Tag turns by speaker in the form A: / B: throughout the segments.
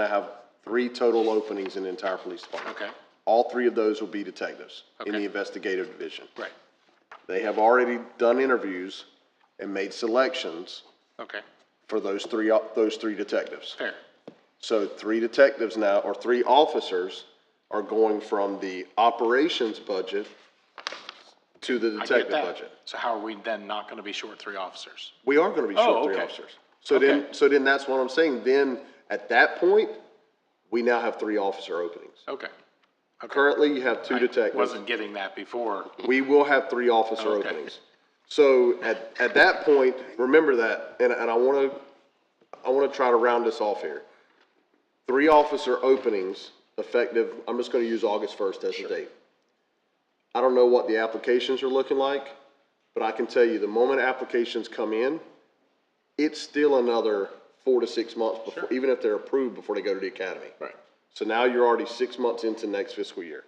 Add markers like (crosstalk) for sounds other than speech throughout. A: I have three total openings in the entire police department.
B: Okay.
A: All three of those will be detectives in the
B: Okay.
A: investigative division.
B: Right,
A: They have already done interviews and made selections
B: okay,
A: for those three, those three detectives.
B: fair,
A: So three detectives now, or three officers, are going from the operations budget to the
B: I get
A: detective
B: that.
A: budget.
B: So how are we then not gonna be short three officers?
A: We are gonna be
B: Oh,
A: short three
B: okay.
A: officers. So then, so then that's what I'm saying, then, at that point, we now have three officer openings.
B: Okay.
A: Currently, you have two detectives.
B: Wasn't getting that before,
A: We will have three officer
B: Okay.
A: openings. So at, at that point, remember that, and, and I wanna, I wanna try to round this off here. Three officer openings effective, I'm just gonna use August first as the date. I don't know what the applications are looking like, but I can tell you, the moment applications come in, it's still another four to six months before, even if they're approved before they go to the academy.
B: Right.
A: So now you're already six months into next fiscal year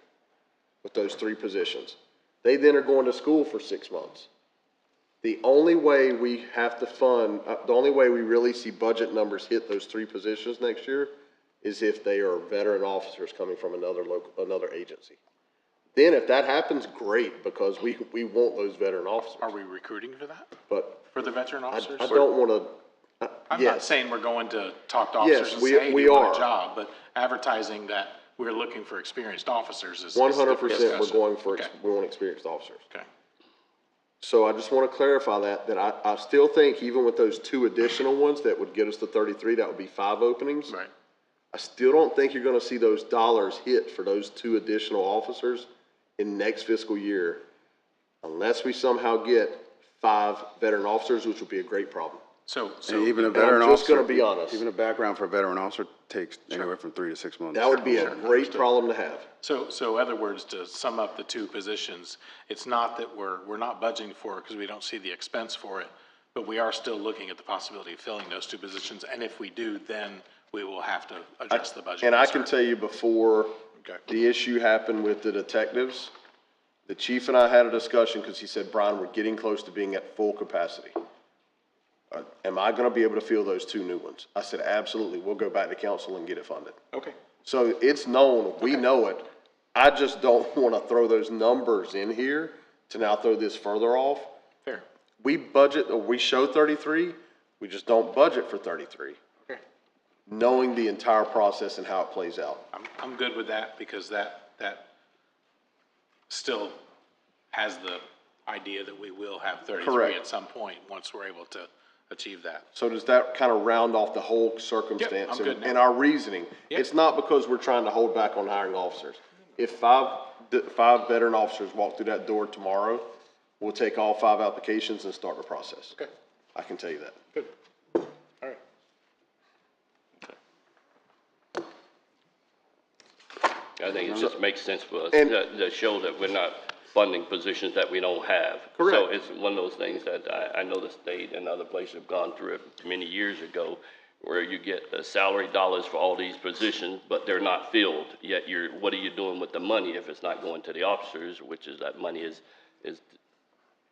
A: with those three positions. They then are going to school for six months. The only way we have to fund, uh, the only way we really see budget numbers hit those three positions next year is if they are veteran officers coming from another local, another agency. Then if that happens, great, because we, we want those veteran
B: are
A: officers,
B: we recruiting for that,
A: but
B: for the veteran
A: I,
B: officers?
A: I don't wanna, uh,
B: I'm not
A: yes,
B: saying we're going to talk to
A: Yes,
B: officers and
A: we-
B: say, hey, do
A: we
B: you want
A: are.
B: a job? But advertising that we're looking for experienced officers is. is a
A: one hundred
B: different
A: percent, we're
B: discussion.
A: going for, ex-
B: Okay,
A: we want experienced officers.
B: Okay,
A: So I just want to clarify that, that I, I still think even with those two additional ones that would get us to thirty-three, that would be five openings.
B: right,
A: I still don't think you're gonna see those dollars hit for those two additional officers in next fiscal year unless we somehow get five veteran officers, which would be a great problem.
B: so, so.
C: And even a
A: I'm
C: veteran
A: just
C: officer.
A: gonna be honest.
C: Even a background for a veteran officer takes anywhere from three to six months.
A: That would be a great problem to have.
B: So, so other words, to sum up the two positions, it's not that we're, we're not budgeting for it because we don't see the expense for it, but we are still looking at the possibility of filling those two positions, and if we do, then we will have to address the budget.
A: And I can
B: concern.
A: tell you before
B: Okay.
A: the issue happened with the detectives, the chief and I had a discussion because he said, Brian, we're getting close to being at full capacity. Uh, Am I gonna be able to fill those two new ones? I said, absolutely. We'll go back to council and get it funded.
B: Okay,
A: So it's known, we know it. I just don't (laughs) wanna throw those numbers in here to now throw this further off.
B: fair.
A: We budget, or we show thirty-three, we just don't budget for thirty-three,
B: Okay.
A: knowing the entire process and how it plays out.
B: I'm, I'm good with that because that, that still has the idea that we will have thirty-three
A: Correct.
B: at some point, once we're able to achieve that.
A: So does that kind of round off the whole circumstance
B: I'm good
A: and
B: now.
A: and our reasoning?
B: Yep.
A: It's not because we're trying to hold back on hiring officers. If five, d- five veteran officers walk through that door tomorrow, we'll take all five applications and start the process.
B: Okay.
A: I can tell you that.
B: Good, all right.
D: I think it just makes sense for us
A: And-
D: to, to show that we're not funding positions that we don't have. So
A: Correct.
D: it's one of those things that I, I know the state and other places have gone through it many years ago, where you get the salary dollars for all these positions, but they're not filled, yet you're, what are you doing with the money if it's not going to the officers, which is that money is, is,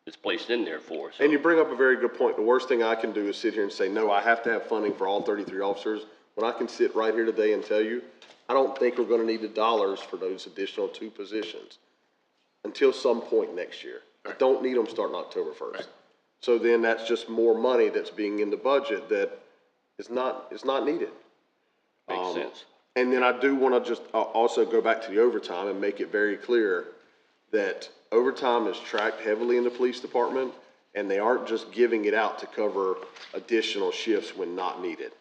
D: is placed in there for, so.
A: And you bring up a very good point. The worst thing I can do is sit here and say, no, I have to have funding for all thirty-three officers. When I can sit right here today and tell you, I don't think we're gonna need the dollars for those additional two positions until some point next year. I don't need them starting October first. So then that's just more money that's being in the budget that is not, is not needed. um,
D: Makes sense.
A: And then I do want to just uh, also go back to the overtime and make it very clear that overtime is tracked heavily in the police department, and they aren't just giving it out to cover additional shifts when not needed.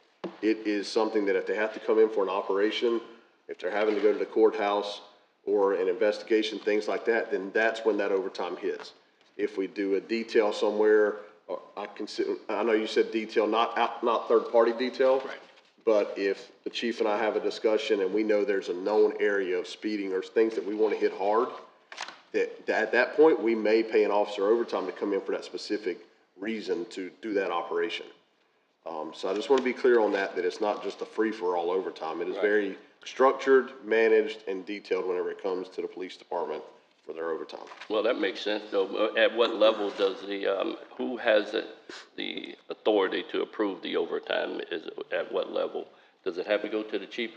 A: It is something that if they have to come in for an operation, if they're having to go to the courthouse or an investigation, things like that, then that's when that overtime hits. If we do a detail somewhere, or I consider, I know you said detail, not out, not third-party detail.
B: Right.
A: But if the chief and I have a discussion and we know there's a known area of speeding or things that we want to hit hard, that, that at that point, we may pay an officer overtime to come in for that specific reason to do that operation. Um, so I just want to be clear on that, that it's not just a free-for-all overtime. It is very structured, managed, and detailed whenever it comes to the police department for their overtime.
D: Well, that makes sense, though. Uh, At what level does the, um, who has the- the authority to approve the overtime? Is, it- at what level? Does it have to go to the chief, or